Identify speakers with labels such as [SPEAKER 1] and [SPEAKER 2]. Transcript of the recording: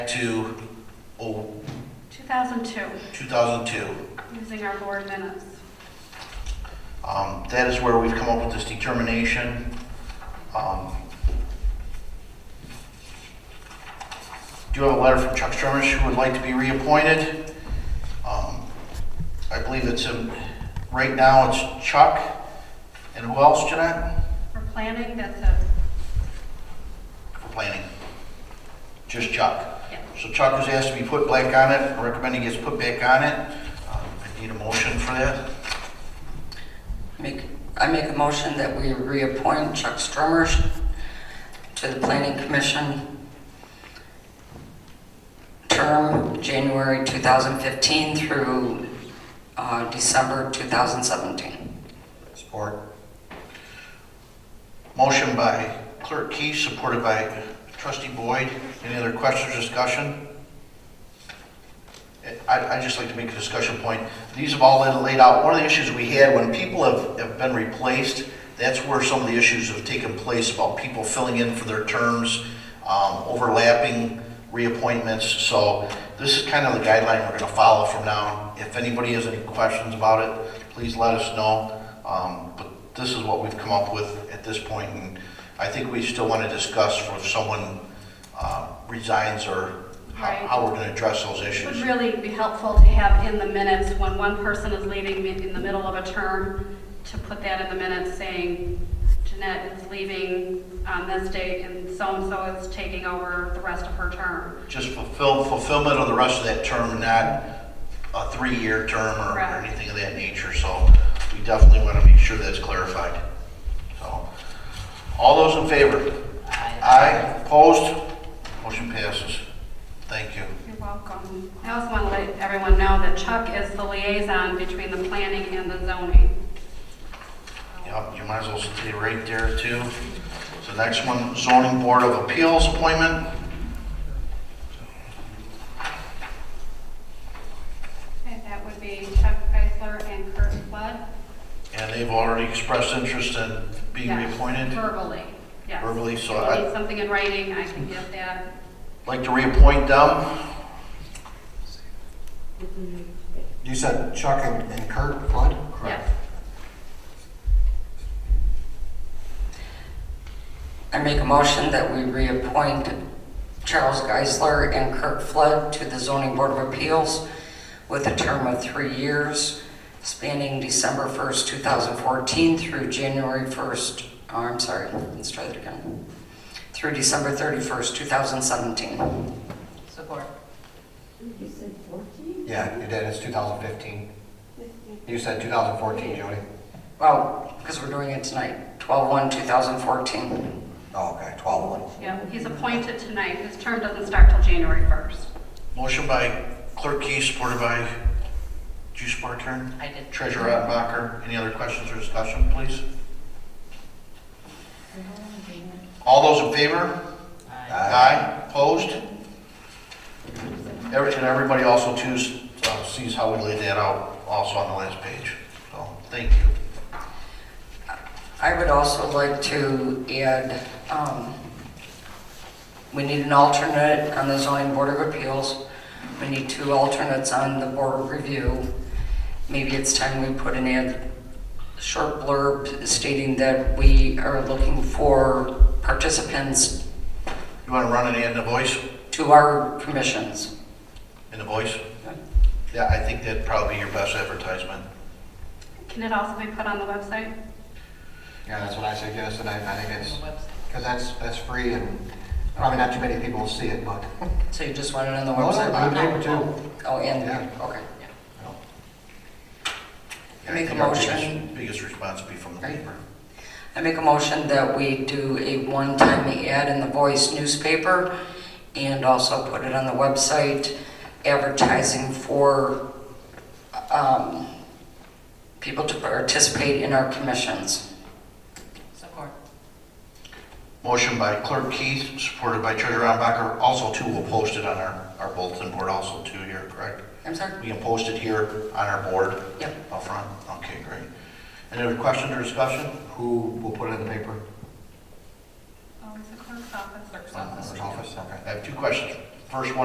[SPEAKER 1] to oh,
[SPEAKER 2] 2002,
[SPEAKER 1] 2002.
[SPEAKER 2] using our board minutes.
[SPEAKER 1] Um, That is where we've come up with this determination. Um, Do have a letter from Chuck Stromish who would like to be reappointed. Um, I believe it's, um, right now it's Chuck and who else, Jeanette?
[SPEAKER 2] For planning, that's a,
[SPEAKER 1] For planning. Just Chuck.
[SPEAKER 2] yeah.
[SPEAKER 1] So Chuck was asked to be put back on it, I recommend he gets put back on it. Um, I need a motion for that.
[SPEAKER 3] Make, I make a motion that we reappoint Chuck Strummers to the Planning Commission. Term January 2015 through uh, December 2017.
[SPEAKER 1] Support. Motion by Clerk Keith, supported by Trustee Boyd. Any other questions, or discussion? I, I'd just like to make a discussion point. These have all been laid out. One of the issues we had, when people have, have been replaced, that's where some of the issues have taken place about people filling in for their terms, um, overlapping reappointments. So this is kind of the guideline we're gonna follow from now. If anybody has any questions about it, please let us know. Um, but this is what we've come up with at this point, and I think we still wanna discuss for if someone, uh, resigns or how,
[SPEAKER 2] Right.
[SPEAKER 1] how we're gonna address those issues.
[SPEAKER 2] Would really be helpful to have in the minutes when one person is leaving mi- in the middle of a term, to put that in the minutes saying Jeanette is leaving on this date and so-and-so is taking over the rest of her term.
[SPEAKER 1] Just fulfill, fulfillment of the rest of that term, not a three-year term or or
[SPEAKER 2] Correct.
[SPEAKER 1] anything of that nature, so we definitely want to make sure that's clarified. So, all those in favor? Aye. Opposed? Motion passes. Thank you.
[SPEAKER 2] You're welcome. I also want to let everyone know that Chuck is the liaison between the planning and the zoning.
[SPEAKER 1] Yep, you might as well stay right there too. So next one, zoning board of appeals appointment.
[SPEAKER 2] Okay, that would be Chuck Geisler and Kurt Flood.
[SPEAKER 1] And they've already expressed interest in being
[SPEAKER 2] Yes,
[SPEAKER 1] reappointed.
[SPEAKER 2] Verbally, yes.
[SPEAKER 1] Verbally, so
[SPEAKER 2] If you
[SPEAKER 1] I-
[SPEAKER 2] Need something in writing, I can get that.
[SPEAKER 1] Like to reappoint them?
[SPEAKER 4] You said Chuck and and Kurt Flood?
[SPEAKER 2] Yes.
[SPEAKER 3] I make a motion that we reappoint Charles Geisler and Kirk Flood to the Zoning Board of Appeals with a term of three years spanning December 1st, 2014 through January 1st, oh, I'm sorry, let's try that again, through December 31st, 2017.
[SPEAKER 5] Support.
[SPEAKER 6] You said 14?
[SPEAKER 4] Yeah, you did, it's 2015. You said 2014, Jody?
[SPEAKER 3] Well, because we're doing it tonight, 12/1/2014.
[SPEAKER 4] Oh, okay, 12-1.
[SPEAKER 2] Yeah, he's appointed tonight. His term doesn't start till January 1st.
[SPEAKER 1] Motion by Clerk Key, supported by, do you support it, Karen?
[SPEAKER 5] I did.
[SPEAKER 1] Treasurer Attenbacher, any other questions or discussion, please? All those in favor? Aye. Opposed? Every- And everybody also too uh, sees how we laid that out also on the last page. So, thank you.
[SPEAKER 3] I would also like to add, um, we need an alternate on the zoning board of appeals. We need two alternates on the board of review. Maybe it's time we put an ad, short blurb stating that we are looking for participants
[SPEAKER 1] You want to run it in the voice,
[SPEAKER 3] to our commissions.
[SPEAKER 1] in the voice? Yeah, I think that'd probably be your best advertisement.
[SPEAKER 2] Can it also be put on the website?
[SPEAKER 4] Yeah, that's what I suggested, I I think it's,
[SPEAKER 5] Website.
[SPEAKER 4] because that's, that's free and probably not too many people will see it, but.
[SPEAKER 3] So you just want it on the
[SPEAKER 4] Well,
[SPEAKER 3] website?
[SPEAKER 4] I'm doing it too.
[SPEAKER 3] Oh, and,
[SPEAKER 4] Yeah.
[SPEAKER 3] okay.
[SPEAKER 1] Yeah, I
[SPEAKER 3] Make a
[SPEAKER 1] think our
[SPEAKER 3] motion.
[SPEAKER 1] biggest- Biggest response would be from the
[SPEAKER 3] Right.
[SPEAKER 1] paper.
[SPEAKER 3] I make a motion that we do a one-time ad in the Voice newspaper and also put it on the website advertising for um, people to participate in our commissions.
[SPEAKER 5] Support.
[SPEAKER 1] Motion by Clerk Keith, supported by Treasurer Attenbacher. Also too, we'll post it on our, our bulletin board also too here, correct?
[SPEAKER 3] I'm sorry?
[SPEAKER 1] We can post it here on our board
[SPEAKER 3] Mm-hmm. Yep.
[SPEAKER 1] up front. Okay, great. Any other questions or discussion?
[SPEAKER 4] Who will put it in the paper?
[SPEAKER 2] Oh, it's the clerk's office.
[SPEAKER 1] Clerk's
[SPEAKER 4] Office, okay.
[SPEAKER 1] I have two questions. First one